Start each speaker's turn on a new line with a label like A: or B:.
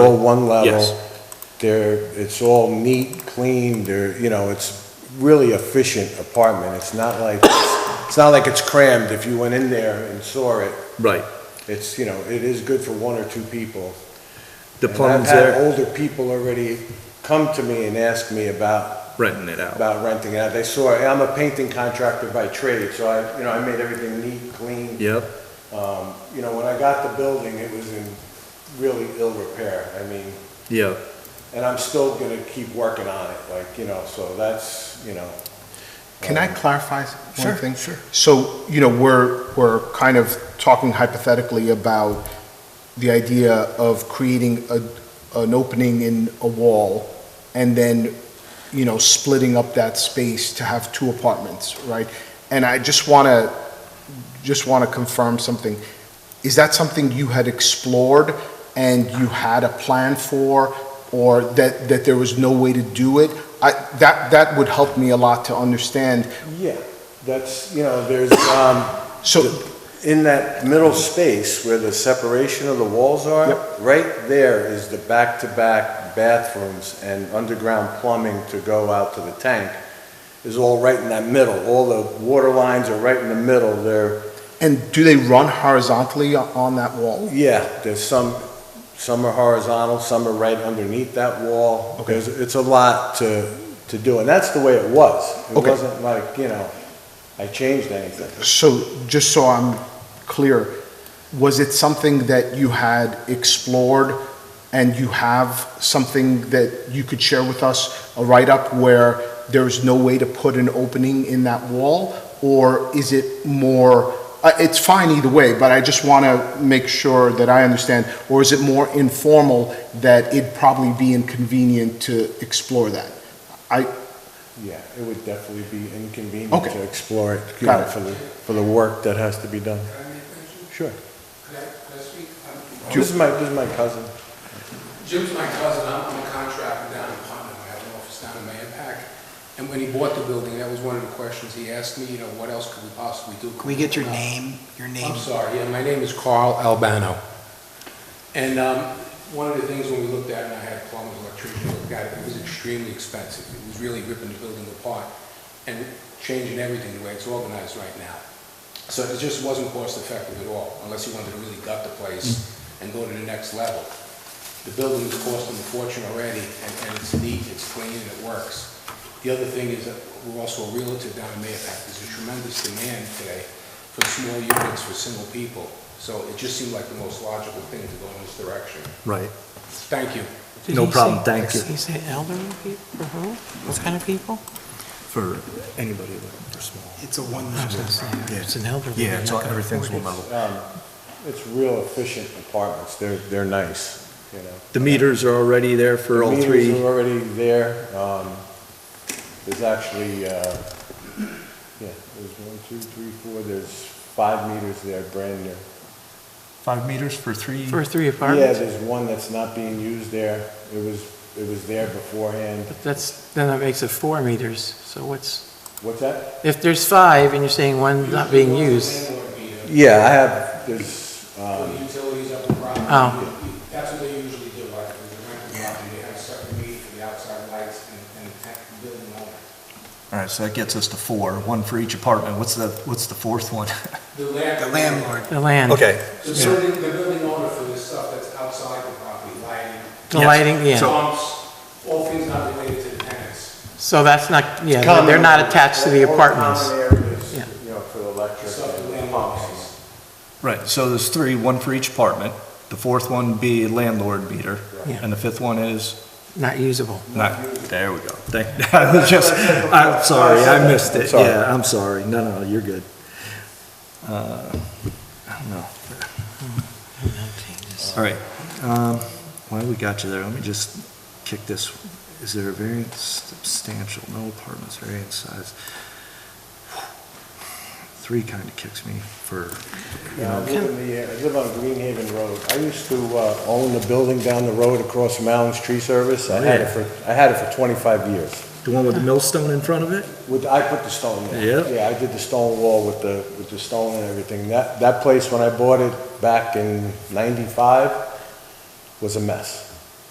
A: all one level.
B: Yes.
A: They're, it's all neat, clean, they're, you know, it's really efficient apartment. It's not like, it's not like it's crammed. If you went in there and saw it,
B: Right.
A: it's, you know, it is good for one or two people.
B: The
A: And
B: plumbing's
A: I've had
B: there,
A: older people already come to me and ask me about,
B: renting it out.
A: about renting it out. They saw, I'm a painting contractor by trade, so I, you know, I made everything neat, clean.
B: Yep,
A: Um, You know, when I got the building, it was in really ill repair. I mean,
B: yep.
A: and I'm still gonna keep working on it, like, you know, so that's, you know,
C: Can I clarify
B: Sure,
C: one thing?
B: sure.
C: So, you know, we're, we're kind of talking hypothetically about the idea of creating a, an opening in a wall and then, you know, splitting up that space to have two apartments, right? And I just want to, just want to confirm something. Is that something you had explored and you had a plan for, or that, that there was no way to do it? I, that, that would help me a lot to understand.
A: yeah, that's, you know, there's, um,
C: So,
A: in that middle space where the separation of the walls are,
C: Yep.
A: right there is the back-to-back bathrooms and underground plumbing to go out to the tank is all right in that middle. All the water lines are right in the middle. They're
C: and do they run horizontally o- on that wall?
A: Yeah, there's some, some are horizontal, some are right underneath that wall.
C: Okay.
A: There's, it's a lot to, to do, and that's the way it was. It
C: Okay.
A: wasn't like, you know, I changed anything.
C: So, just so I'm clear, was it something that you had explored and you have something that you could share with us, a write-up where there's no way to put an opening in that wall? Or is it more, uh, it's fine either way, but I just want to make sure that I understand. Or is it more informal that it'd probably be inconvenient to explore that?
A: Yeah, it would definitely be inconvenient
C: Okay.
A: to explore it, you
C: Got
A: know,
C: it.
A: for the, for the work that has to be done. Sure.
D: Could I, could I speak? Um,
A: This is my, this is my cousin.
D: Jim's my cousin, I'm I'm a contractor down in Putnam, I have an office down in Mayapack. And when he bought the building, that was one of the questions he asked me, you know, what else could we possibly do? Uh,
E: Can we get your name, your name?
D: I'm sorry, yeah, my name is Carl Albano. And um, one of the things when we looked at, it, and I had plumbers, electricians, look at it, it was extremely expensive. It was really ripping the building apart and changing everything the way it's organized right now. So it just wasn't cost effective at all, unless you wanted to really gut the place and go to the next level. The building is costing a fortune already, and and it's neat, it's clean, and it works. The other thing is that we're also a realtor down in Mayapack. There's a tremendous demand today for small units for single people. So it just seemed like the most logical thing to go in this direction.
B: Right.
D: Thank you.
E: Did
B: No
E: he
B: problem,
E: say-
B: thank you.
E: Did he say elderly people, or who? What kind of people?
B: For anybody looking for small.
E: It's a one-level. It's an elderly.
B: Yeah,
E: they're
B: it's
E: not
B: all,
E: gonna
B: everything's
E: afford
B: one
E: it.
B: level.
A: Um, It's real efficient apartments, they're, they're nice, you know.
B: The meters are already there for all
A: Meters
B: three.
A: are already there. Um, There's actually, uh, yeah, there's one, two, three, four, there's five meters there, brand new.
B: Five meters for three?
E: For three
A: Yeah,
E: apartments?
A: there's one that's not being used there. It was, it was there beforehand.
E: But That's, then that makes it four meters, so what's,
A: What's that?
E: if there's five and you're saying one's not being used,
D: Landlord meter,
A: Yeah, I have, there's,
D: for
A: um,
D: Uh, the utilities up the property.
E: Oh.
D: That's what they usually do, like, when you rent the property, they have a separate meter for the outside lights and, and the building owner.
B: All right, so that gets us to four, one for each apartment. What's the, what's the fourth one?
D: The landlord. The landlord.
E: the land.
B: Okay.
D: The building, the building owner for the stuff that's outside the property, lighting,
E: The lighting, yeah.
D: pumps, all things not related to the tenants.
E: So that's not, yeah, they're- they're not attached to the
A: All
E: apartments.
A: common areas,
E: Yeah.
A: you know, for the electric.
D: Stuff the
A: and
D: landlord
A: pumps.
D: pays.
B: Right, so there's three, one for each apartment. The fourth one be landlord meter.
E: Yeah.
B: And the fifth one is?
E: Not usable.
B: Not, there we go. Thank, I was just, I'm sorry, I missed it.
A: Sorry.
B: Yeah, I'm sorry. No, no, you're good. Uh, I don't know. All right, um, while we got you there, let me just kick this. Is there a variance substantial, no apartments, variance size? Three kind of kicks me for, you
A: Yeah, I
B: know,
A: live in the, uh, I live on Greenhaven Road. I used to uh, own the building down the road across from Allen's Tree Service. I had it for, I had it for 25 years.
B: the one with the millstone in front of it?
A: With, I put the stone there.
B: Yeah.
A: Yeah, I did the stone wall with the, with the stone and everything. That, that place, when I bought it back in 95, was a mess.